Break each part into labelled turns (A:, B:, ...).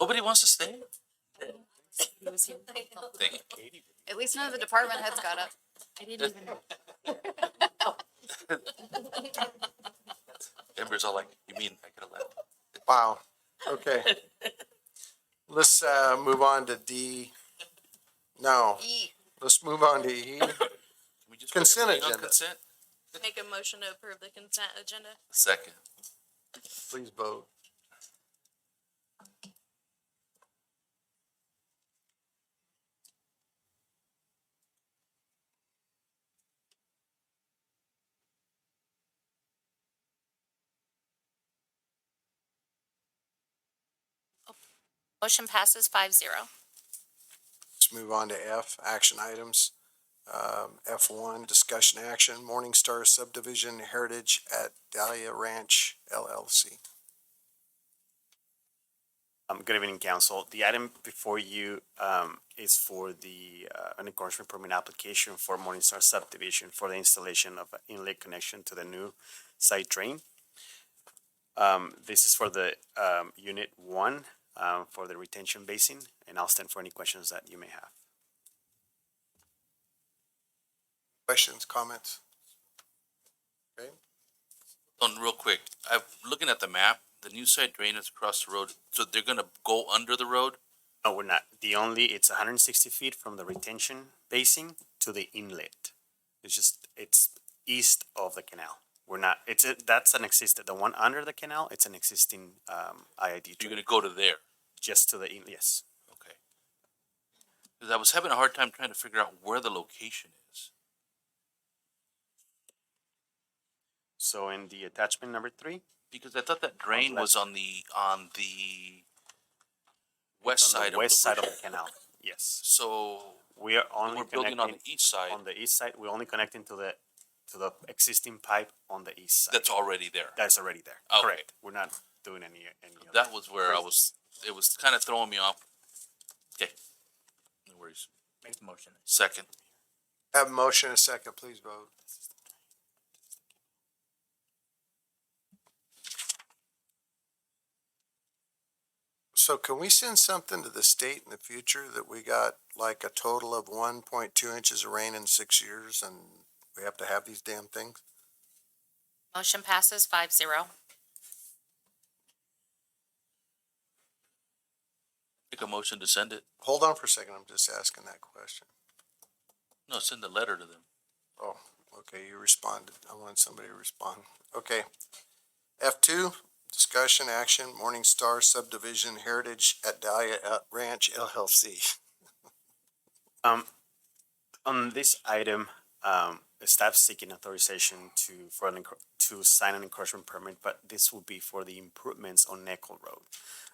A: Nobody wants to stay? Thank you.
B: At least none of the department heads got up.
C: I didn't even know.
A: Amber's all like, you mean I could have left?
D: Wow. Okay. Let's uh, move on to D. No,
B: E.
D: let's move on to E.
A: Can we just
D: Consent
A: put everything on
D: agenda.
A: Consent?
C: Make a motion to approve the consent agenda.
A: Second.
D: Please vote.
C: Motion passes five zero.
D: Let's move on to F, action items. Um, F one, discussion action, Morningstar subdivision heritage at Dahlia Ranch LLC.
E: Um, good evening, council. The item before you, um, is for the, uh, an encouragement permit application for Morningstar subdivision for the installation of an inlet connection to the new site drain. Um, this is for the, um, unit one, um, for the retention basin, and I'll stand for any questions that you may have.
D: Questions, comments? Okay,
A: On Um, real quick, I'm looking at the map, the new side drain is across the road, so they're gonna go under the road?
E: No, we're not. The only, it's hundred and sixty feet from the retention basin to the inlet. It's just, it's east of the canal. We're not, it's, a- that's an existing, the one under the canal, it's an existing, um, IID.
A: You're
E: drain,
A: gonna go to there?
E: Just to the, in- yes.
A: Okay. Cause I was having a hard time trying to figure out where the location is.
E: So in the attachment number three,
A: Because I thought that drain was on the, on the west
E: it's on
A: side
E: the
A: of
E: west
A: the
E: side of
A: bridge.
E: the canal, yes.
A: So
E: We are only
A: we're building on
E: connecting,
A: the east side,
E: on the east side, we're only connecting to the, to the existing pipe on the east side.
A: that's already there.
E: That's already there,
A: Okay.
E: correct. We're not doing any, any. other-
A: That was where I
E: crazy.
A: was, it was kinda throwing me off. Okay. No worries.
F: Make the motion.
A: Second.
D: have a motion and a second, please vote. So can we send something to the state in the future that we got like a total of one point two inches of rain in six years and we have to have these damn things?
C: Motion passes five zero.
A: Make a motion to send it.
D: Hold on for a second, I'm just asking that question.
A: No, send a letter to them.
D: Oh, okay, you responded. I wanted somebody to respond. Okay. F two, discussion action, Morningstar subdivision heritage at Dahlia uh, Ranch LLC.
E: Um, on this item, um, staff seeking authorization to, for an, encro- to sign an encroachment permit, but this will be for the improvements on Nickel Road.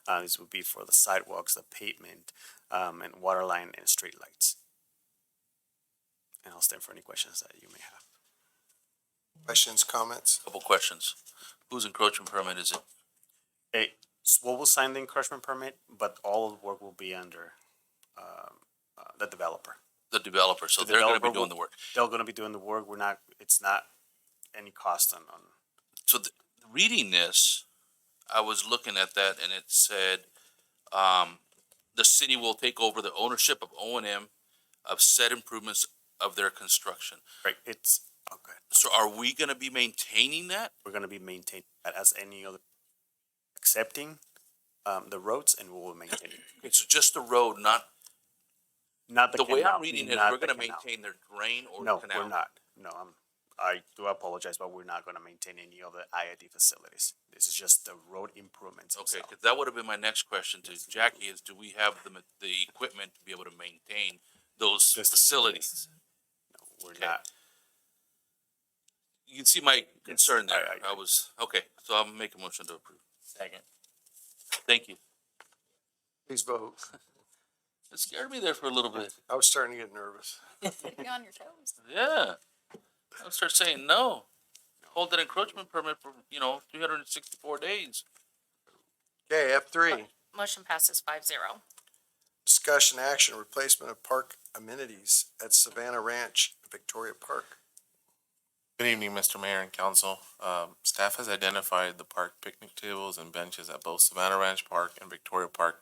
E: Uh, this would be for the sidewalks, the pavement, um, and water line and street lights. And I'll stand for any questions that you may have.
D: Questions, comments?
A: Couple questions. Whose encroachment permit is it?
E: Hey, Swole will sign the encroachment permit, but all of the work will be under, um, uh, the developer.
A: The developer, so
E: The
A: they're gonna be
E: developer
A: doing
E: will-
A: the work.
E: They're gonna be doing the work. We're not, it's not any cost on, on
A: So th- reading this, I was looking at that and it said, um, the city will take over the ownership of O and M of said improvements of their construction.
E: Right, it's, okay,
A: So are we gonna be maintaining that?
E: we're gonna be maintaining that as any other, accepting, um, the roads and we will maintain it.
A: Okay, so just the road, not,
E: Not the
A: the
E: canal.
A: way I'm reading it,
E: not
A: we're
E: the
A: gonna
E: canal.
A: maintain their drain or
E: No,
A: canal?
E: we're not, no, I'm, I do apologize, but we're not gonna maintain any of the IID facilities. This is just the road improvements
A: Okay,
E: itself.
A: because that would have been my next question to Jackie is, do we have the, ma- the equipment to be able to maintain those
E: Just-
A: facilities?
E: No, We're
A: okay.
E: not,
A: You can see my concern there.
E: I- I-
A: I was, okay, so I'll make a motion to approve.
F: Second.
A: Thank you.
D: Please vote.
A: It scared me there for a little bit.
D: I was starting to get nervous.
B: Keep you on your toes.
A: Yeah. I'll start saying no. Hold that encroachment permit for, you know, three hundred and sixty-four days.
D: Okay, F three,
C: Motion passes five zero.
D: discussion action, replacement of park amenities at Savannah Ranch, Victoria Park.
G: Good evening, Mr. Mayor and Council. Um, staff has identified the park picnic tables and benches at both Savannah Ranch Park and Victoria Park